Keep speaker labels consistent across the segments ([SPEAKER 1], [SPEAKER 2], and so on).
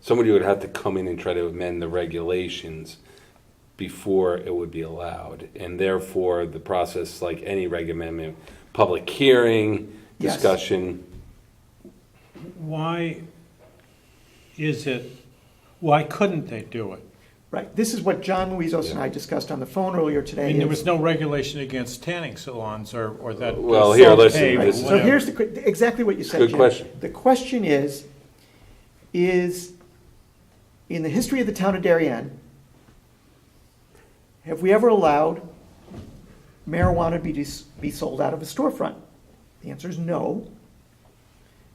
[SPEAKER 1] somebody would have to come in and try to amend the regulations before it would be allowed. And therefore, the process, like any reg amendment, public hearing,
[SPEAKER 2] Yes.
[SPEAKER 1] discussion.
[SPEAKER 3] Why is it, why couldn't they do it?
[SPEAKER 2] Right, this is what John Luizos and I discussed on the phone earlier
[SPEAKER 3] I
[SPEAKER 2] today.
[SPEAKER 3] mean, there
[SPEAKER 2] is-
[SPEAKER 3] was no regulation against tanning salons or, or that.
[SPEAKER 1] Well, here,
[SPEAKER 3] salt
[SPEAKER 1] listen,
[SPEAKER 3] cave or
[SPEAKER 2] Right,
[SPEAKER 1] this is-
[SPEAKER 2] So
[SPEAKER 3] whatever.
[SPEAKER 2] here's the, que- exactly what you said,
[SPEAKER 1] Good
[SPEAKER 2] Jim.
[SPEAKER 1] question.
[SPEAKER 2] The question is, is, in the history of the town of Darien, have we ever allowed marijuana to be, dis- be sold out of a storefront? The answer is no.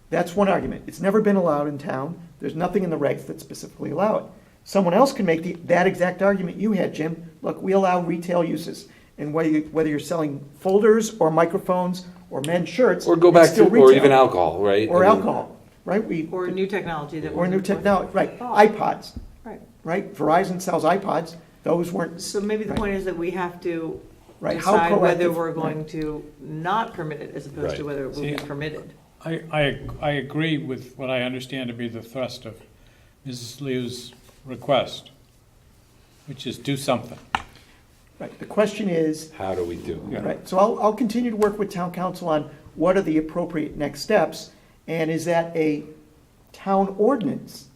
[SPEAKER 2] That's one argument. It's never been allowed in town. There's nothing in the regs that specifically allow it. Someone else can make the, that exact argument you had, Jim. Look, we allow retail uses, and whether, you- whether you're selling folders or microphones or men's shirts.
[SPEAKER 1] Or go
[SPEAKER 2] it's
[SPEAKER 1] back to,
[SPEAKER 2] still
[SPEAKER 1] or
[SPEAKER 2] retail.
[SPEAKER 1] even alcohol, right?
[SPEAKER 2] Or
[SPEAKER 1] I mean,
[SPEAKER 2] alcohol, right? We,
[SPEAKER 4] Or new technology that.
[SPEAKER 2] or new
[SPEAKER 4] wasn't-
[SPEAKER 2] technology, right? iPods,
[SPEAKER 4] Right.
[SPEAKER 2] right? Verizon sells iPods. Those weren't,
[SPEAKER 4] So maybe the
[SPEAKER 2] Right.
[SPEAKER 4] point is that we have to
[SPEAKER 2] Right, how
[SPEAKER 4] decide whether
[SPEAKER 2] proactive-
[SPEAKER 4] we're going to not permit it as opposed to
[SPEAKER 1] Right.
[SPEAKER 4] whether it will be
[SPEAKER 3] See-
[SPEAKER 4] permitted.
[SPEAKER 3] I, I, I agree with what I understand to be the thrust of Mrs. Liu's request, which is do something.
[SPEAKER 2] right? The question is,
[SPEAKER 1] How do we do it?
[SPEAKER 2] Right, so I'll, I'll continue to work with town council on what are the appropriate next steps, and is that a town ordinance,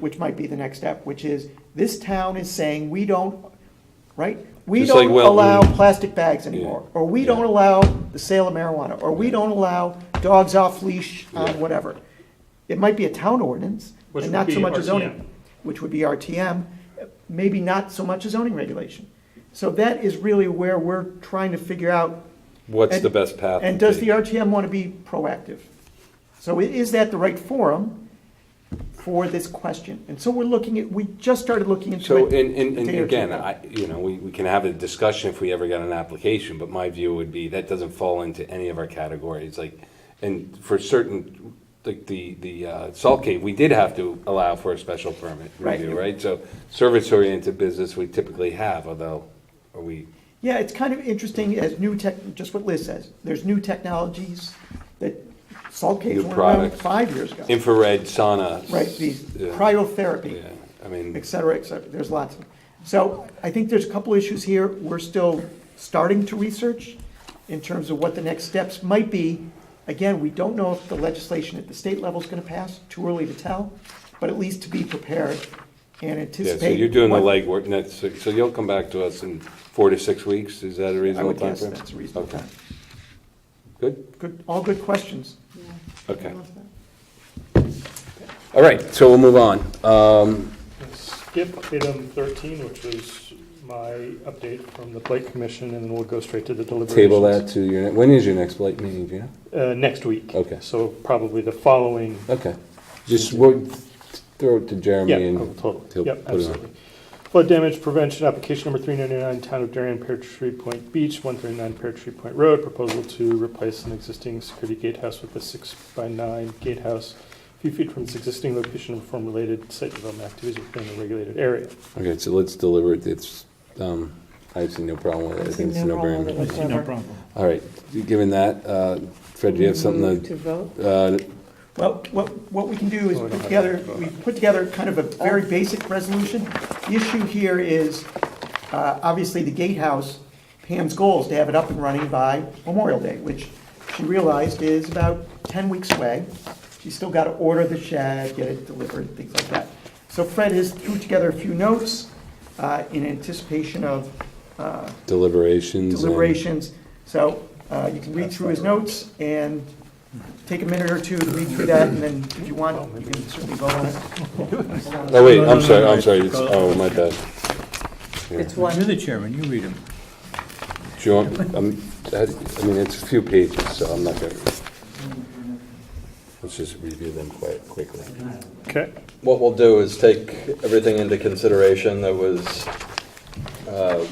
[SPEAKER 2] which might be the next step, which is, this town is saying, we don't, right? We
[SPEAKER 1] Just like
[SPEAKER 2] don't
[SPEAKER 1] Wilton.
[SPEAKER 2] allow plastic bags anymore, or we
[SPEAKER 1] Yeah.
[SPEAKER 2] don't allow the sale of marijuana, or we don't allow dogs off leash
[SPEAKER 1] Yeah.
[SPEAKER 2] on whatever. It might be a town ordinance,
[SPEAKER 5] Which
[SPEAKER 2] and
[SPEAKER 5] would
[SPEAKER 2] not so
[SPEAKER 5] be
[SPEAKER 2] much a
[SPEAKER 5] RTM.
[SPEAKER 2] zoning, which would be RTM, maybe not so much a zoning regulation. So that is really where we're trying to figure out,
[SPEAKER 1] What's
[SPEAKER 2] And-
[SPEAKER 1] the best path?
[SPEAKER 2] and
[SPEAKER 1] to
[SPEAKER 2] does the
[SPEAKER 1] take?
[SPEAKER 2] RTM want to be proactive? So i- is that the right forum for this question? And so we're looking at, we just started looking into
[SPEAKER 1] So,
[SPEAKER 2] it.
[SPEAKER 1] and, and,
[SPEAKER 2] a
[SPEAKER 1] and
[SPEAKER 2] day or two
[SPEAKER 1] again,
[SPEAKER 2] ago.
[SPEAKER 1] I, you know, we, we can have a discussion if we ever got an application, but my view would be that doesn't fall into any of our categories, like, and for certain, like the, the, uh, Salt Cave, we did have to allow for a special permit
[SPEAKER 2] Right.
[SPEAKER 1] review, right? So service-oriented business we typically have, although, are we,
[SPEAKER 2] Yeah, it's kind of interesting as new tech, just what Liz says, there's new technologies that Salt
[SPEAKER 1] New
[SPEAKER 2] Cave were around
[SPEAKER 1] products.
[SPEAKER 2] five years ago.
[SPEAKER 1] infrared sauna.
[SPEAKER 2] Right, these
[SPEAKER 1] Yeah.
[SPEAKER 2] cryotherapy.
[SPEAKER 1] Yeah, I mean,
[SPEAKER 2] et cetera, et cetera. There's lots. of So I think there's a couple issues here. We're still starting to research in terms of what the next steps might be. Again, we don't know if the legislation at the state level is going to pass, too early to tell, but at least to be prepared and
[SPEAKER 1] yeah,
[SPEAKER 2] anticipate.
[SPEAKER 1] so you're doing the
[SPEAKER 2] what-
[SPEAKER 1] legwork, and that's, so you'll come back to us in four to six weeks, is that a
[SPEAKER 2] I
[SPEAKER 1] reasonable
[SPEAKER 2] would guess
[SPEAKER 1] timeframe?
[SPEAKER 2] that's a reasonable
[SPEAKER 1] Okay.
[SPEAKER 2] time.
[SPEAKER 1] Good,
[SPEAKER 2] Good, all good questions.
[SPEAKER 1] okay. All right, so we'll move on. Um,
[SPEAKER 5] Skip item 13, which was my update from the Blight Commission, and then we'll go straight to the deliberations.
[SPEAKER 1] Table that to your, ne- when is your next blight meeting, do you know?
[SPEAKER 5] Uh, next week.
[SPEAKER 1] Okay.
[SPEAKER 5] So probably the following,
[SPEAKER 1] Okay. Just we'll throw it to Jeremy
[SPEAKER 5] yeah,
[SPEAKER 1] and.
[SPEAKER 5] oh,
[SPEAKER 1] he'll
[SPEAKER 5] totally, yep,
[SPEAKER 1] put it on.
[SPEAKER 5] absolutely. Flood damage prevention, application number 399, Town of Darien, Pear Tree Point Beach, 139 Pear Tree Point Road, proposal to replace an existing security gatehouse with a six by nine gatehouse, a few feet from its existing location and perform related site development activities within the regulated area.
[SPEAKER 1] Okay, so let's deliver it, it's, um, I see no problem with it, I
[SPEAKER 6] I've
[SPEAKER 1] think
[SPEAKER 6] seen
[SPEAKER 1] it's
[SPEAKER 6] no
[SPEAKER 1] no
[SPEAKER 6] problem with
[SPEAKER 1] brainer.
[SPEAKER 6] it.
[SPEAKER 3] I see no problem.
[SPEAKER 1] All right, given that, uh, Fred, do you have something
[SPEAKER 6] To vote?
[SPEAKER 1] to, uh,
[SPEAKER 2] Well, what, what we can do is
[SPEAKER 5] Oh,
[SPEAKER 2] put
[SPEAKER 5] we don't have
[SPEAKER 2] together,
[SPEAKER 5] that.
[SPEAKER 2] we put together kind of a very basic resolution. The issue here is, uh, obviously, the gatehouse, Pam's goal is to have it up and running by Memorial Day, which she realized is about ten weeks away. She's still got to order the shed, get it delivered, things like that. So Fred has threw together a few notes, uh, in anticipation of, uh,
[SPEAKER 1] deliberations? and-
[SPEAKER 2] deliberations. So uh, you can read through his notes and take a minute or two to read through that, and then if you want, you can certainly vote on it.
[SPEAKER 1] Oh, wait,
[SPEAKER 3] No,
[SPEAKER 1] I'm
[SPEAKER 3] no,
[SPEAKER 1] sorry,
[SPEAKER 3] no,
[SPEAKER 1] I'm
[SPEAKER 3] no,
[SPEAKER 1] sorry,
[SPEAKER 3] it's-
[SPEAKER 1] it's, oh, my bad.
[SPEAKER 4] It's
[SPEAKER 6] You're
[SPEAKER 4] one,
[SPEAKER 6] the chairman, you read them.
[SPEAKER 1] Do you want, um, I I mean, it's a few pages, so I'm not gonna. Let's just review them quite quickly.
[SPEAKER 5] Okay.
[SPEAKER 7] What we'll do is take everything into consideration that was uh,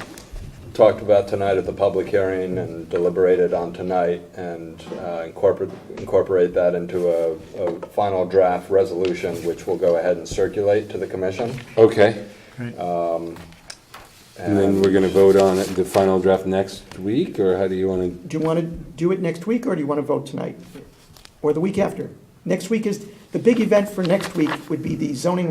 [SPEAKER 7] talked about tonight at the public hearing and deliberated on tonight and uh, incorporate, incorporate that into a, a final draft resolution, which we'll go ahead and circulate to the commission.
[SPEAKER 1] Okay. And then we're gonna vote on it, the final draft next week, or how do you wanna,
[SPEAKER 2] Do you want to do it next week, or do you want to vote tonight? Or the week after? Next week is, the big event for next week would be the zoning